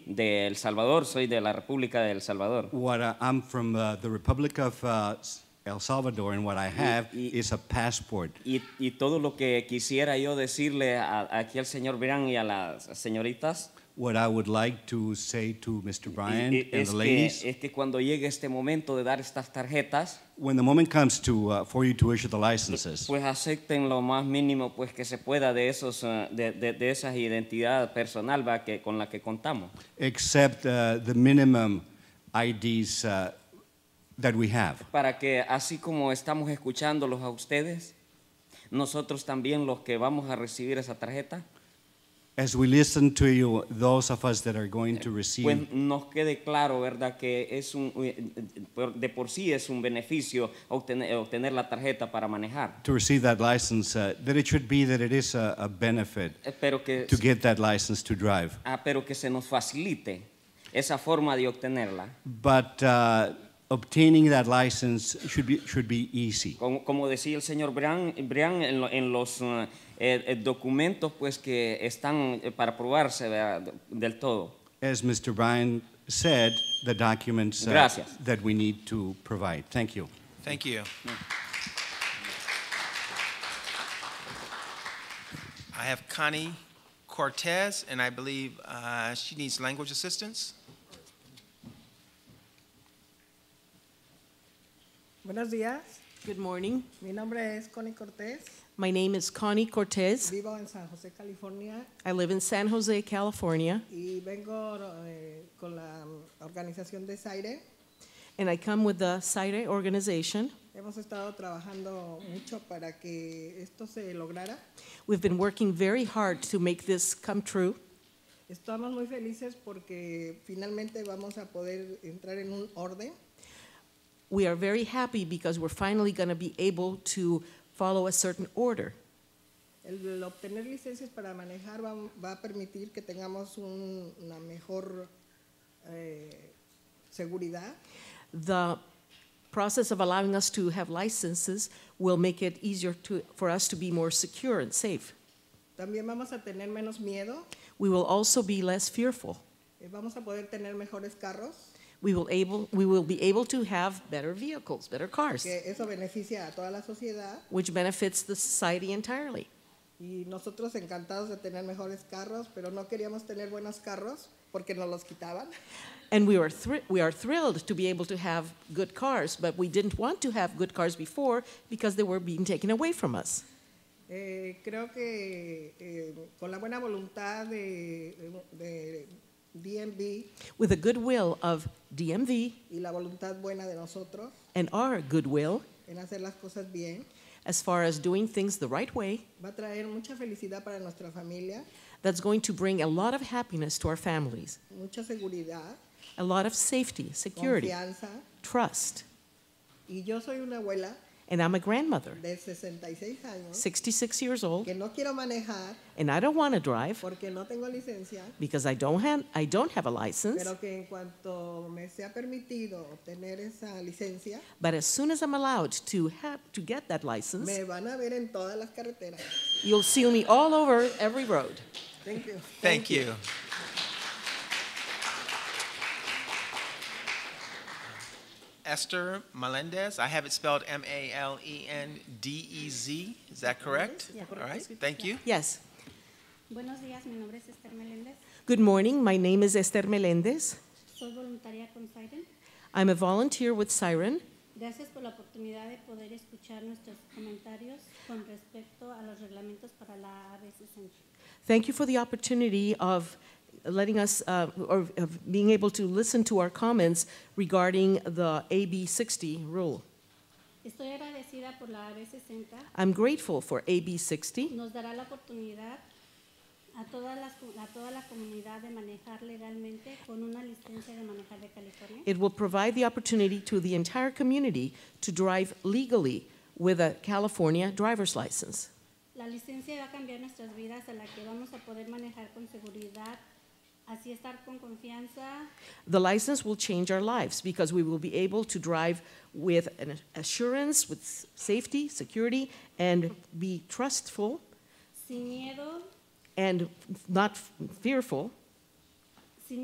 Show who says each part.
Speaker 1: de El Salvador, soy de la República de El Salvador.
Speaker 2: What I, I'm from uh, the Republic of uh, S- El Salvador, and what I have
Speaker 1: y-
Speaker 2: is a passport.
Speaker 1: Y, y todo lo que quisiera yo decirle a- aquí al señor Brian y a las señoritas
Speaker 2: What I would like to say to Mr. Bryant
Speaker 1: y- y- es,
Speaker 2: and the
Speaker 1: que, eh
Speaker 2: ladies,
Speaker 1: es que cuando llegue este momento de dar estas tarjetas,
Speaker 2: when the moment comes to uh, for you to issue the licenses,
Speaker 1: pues acepten lo más mínimo pues que se pueda de esos eh, de, de- de esas identidad personal ¿va? que con la que contamos.
Speaker 2: accept uh, the minimum IDs uh, that we have.
Speaker 1: para que así como estamos escuchándolos a ustedes, nosotros también los que vamos a recibir esa tarjeta,
Speaker 2: As we listen to you, those of us that are going
Speaker 1: Eh,
Speaker 2: to receive
Speaker 1: pues nos quede claro, ¿verdad? Que es un, de por sí es un beneficio obtener, obtener la tarjeta para manejar,
Speaker 2: to receive that license, uh, that it should be that it is a, a benefit
Speaker 1: Eh, pero que,
Speaker 2: to get that license to drive.
Speaker 1: ah, pero que se nos facilite esa forma de obtenerla.
Speaker 2: But uh, obtaining that license should be, should be easy.
Speaker 1: Como, como decía el señor Brian, Brian, en, lo- en los eh, eh, documentos pues, que están eh, para probarse ¿verdad? del todo.
Speaker 2: As Mr. Bryan said, the documents uh,
Speaker 1: Gracias.
Speaker 2: that we need to provide. Thank you.
Speaker 3: Thank you. I have Connie Cortez, and I believe uh, she needs language assistance.
Speaker 4: Buenos días,
Speaker 5: Good morning.
Speaker 4: mi nombre es Connie Cortés,
Speaker 5: My name is Connie Cortez.
Speaker 4: vivo en San José, California
Speaker 5: I live in San Jose, California,
Speaker 4: y vengo eh, con la mm, organización de Zaire.
Speaker 5: and I come with the SIRE organization.
Speaker 4: Hemos estado trabajando mucho para que esto se lograra.
Speaker 5: We've been working very hard to make this come true.
Speaker 4: Estamos muy felices porque finalmente vamos a poder entrar en un orden
Speaker 5: We are very happy because we're finally going to be able to follow a certain order.
Speaker 4: El, el obtener licencias para manejar va, va a permitir que tengamos un- una mejor eh, seguridad
Speaker 5: The process of allowing us to have licenses will make it easier to, for us to be more secure and safe.
Speaker 4: También vamos a tener menos miedo,
Speaker 5: We will also be less fearful.
Speaker 4: eh, vamos a poder tener mejores carros,
Speaker 5: We will, able, we will be able to have better vehicles, better cars.
Speaker 4: que eso beneficia a toda la sociedad
Speaker 5: which benefits the society entirely.
Speaker 4: y nosotros encantados de tener mejores carros, pero no queríamos tener buenos carros porque nos los quitaban.
Speaker 5: And we, were thr- we are thrilled to be able to have good cars, but we didn't want to have good cars before because they were being taken away from us.
Speaker 4: Eh, creo que eh, con la buena voluntad de, de DMV
Speaker 5: With the goodwill of DMV
Speaker 4: y la voluntad buena de nosotros
Speaker 5: and our goodwill,
Speaker 4: en hacer las cosas bien,
Speaker 5: as far as doing things the right way,
Speaker 4: va a traer mucha felicidad para nuestra familia,
Speaker 5: that's going to bring a lot of happiness to our families,
Speaker 4: mucha seguridad,
Speaker 5: a lot of safety, security,
Speaker 4: confianza.
Speaker 5: trust.
Speaker 4: Y yo soy una abuela
Speaker 5: And I'm a grandmother,
Speaker 4: de 66 años
Speaker 5: 66 years old,
Speaker 4: que no quiero manejar
Speaker 5: and I don't want to drive
Speaker 4: porque no tengo licencia,
Speaker 5: because I don't, have, I don't have a license.
Speaker 4: pero que en cuanto me sea permitido obtener esa licencia,
Speaker 5: But as soon as I'm allowed to have to get that license,
Speaker 4: me van a ver en todas las carreteras.
Speaker 5: you'll see me all over every road.
Speaker 4: Thank you.
Speaker 3: Thank you. Esther Melendez, I have it spelled E M-A-L-E-N-D-E-Z, is that correct?
Speaker 5: Yeah.
Speaker 3: All right, thank you.
Speaker 5: Yes.
Speaker 6: Buenos días, mi nombre es Esther Meléndez,
Speaker 5: Good morning. My name is Esther Melendez.
Speaker 6: soy voluntaria con Siren.
Speaker 5: I'm a volunteer with Siren.
Speaker 6: Gracias por la oportunidad de poder escuchar nuestros comentarios con respecto a los reglamentos para la AB60.
Speaker 5: Thank you for the opportunity of letting us uh, or of being able to listen to our comments regarding the AB60 rule.
Speaker 6: Estoy agradecida por la AB60,
Speaker 5: I'm grateful for AB60.
Speaker 6: nos dará la oportunidad a, todas las, co- a toda la comunidad de manejar legalmente con una licencia de manejar de California.
Speaker 5: It will provide the opportunity to the entire community to drive legally with a California driver's license.
Speaker 6: La licencia va a cambiar nuestras vidas a la que vamos a poder manejar con seguridad, así estar con confianza,
Speaker 5: The license will change our lives because we will be able to drive with an assurance, with s- safety, security, and be trustful
Speaker 6: sin miedo
Speaker 5: and f- not f- fearful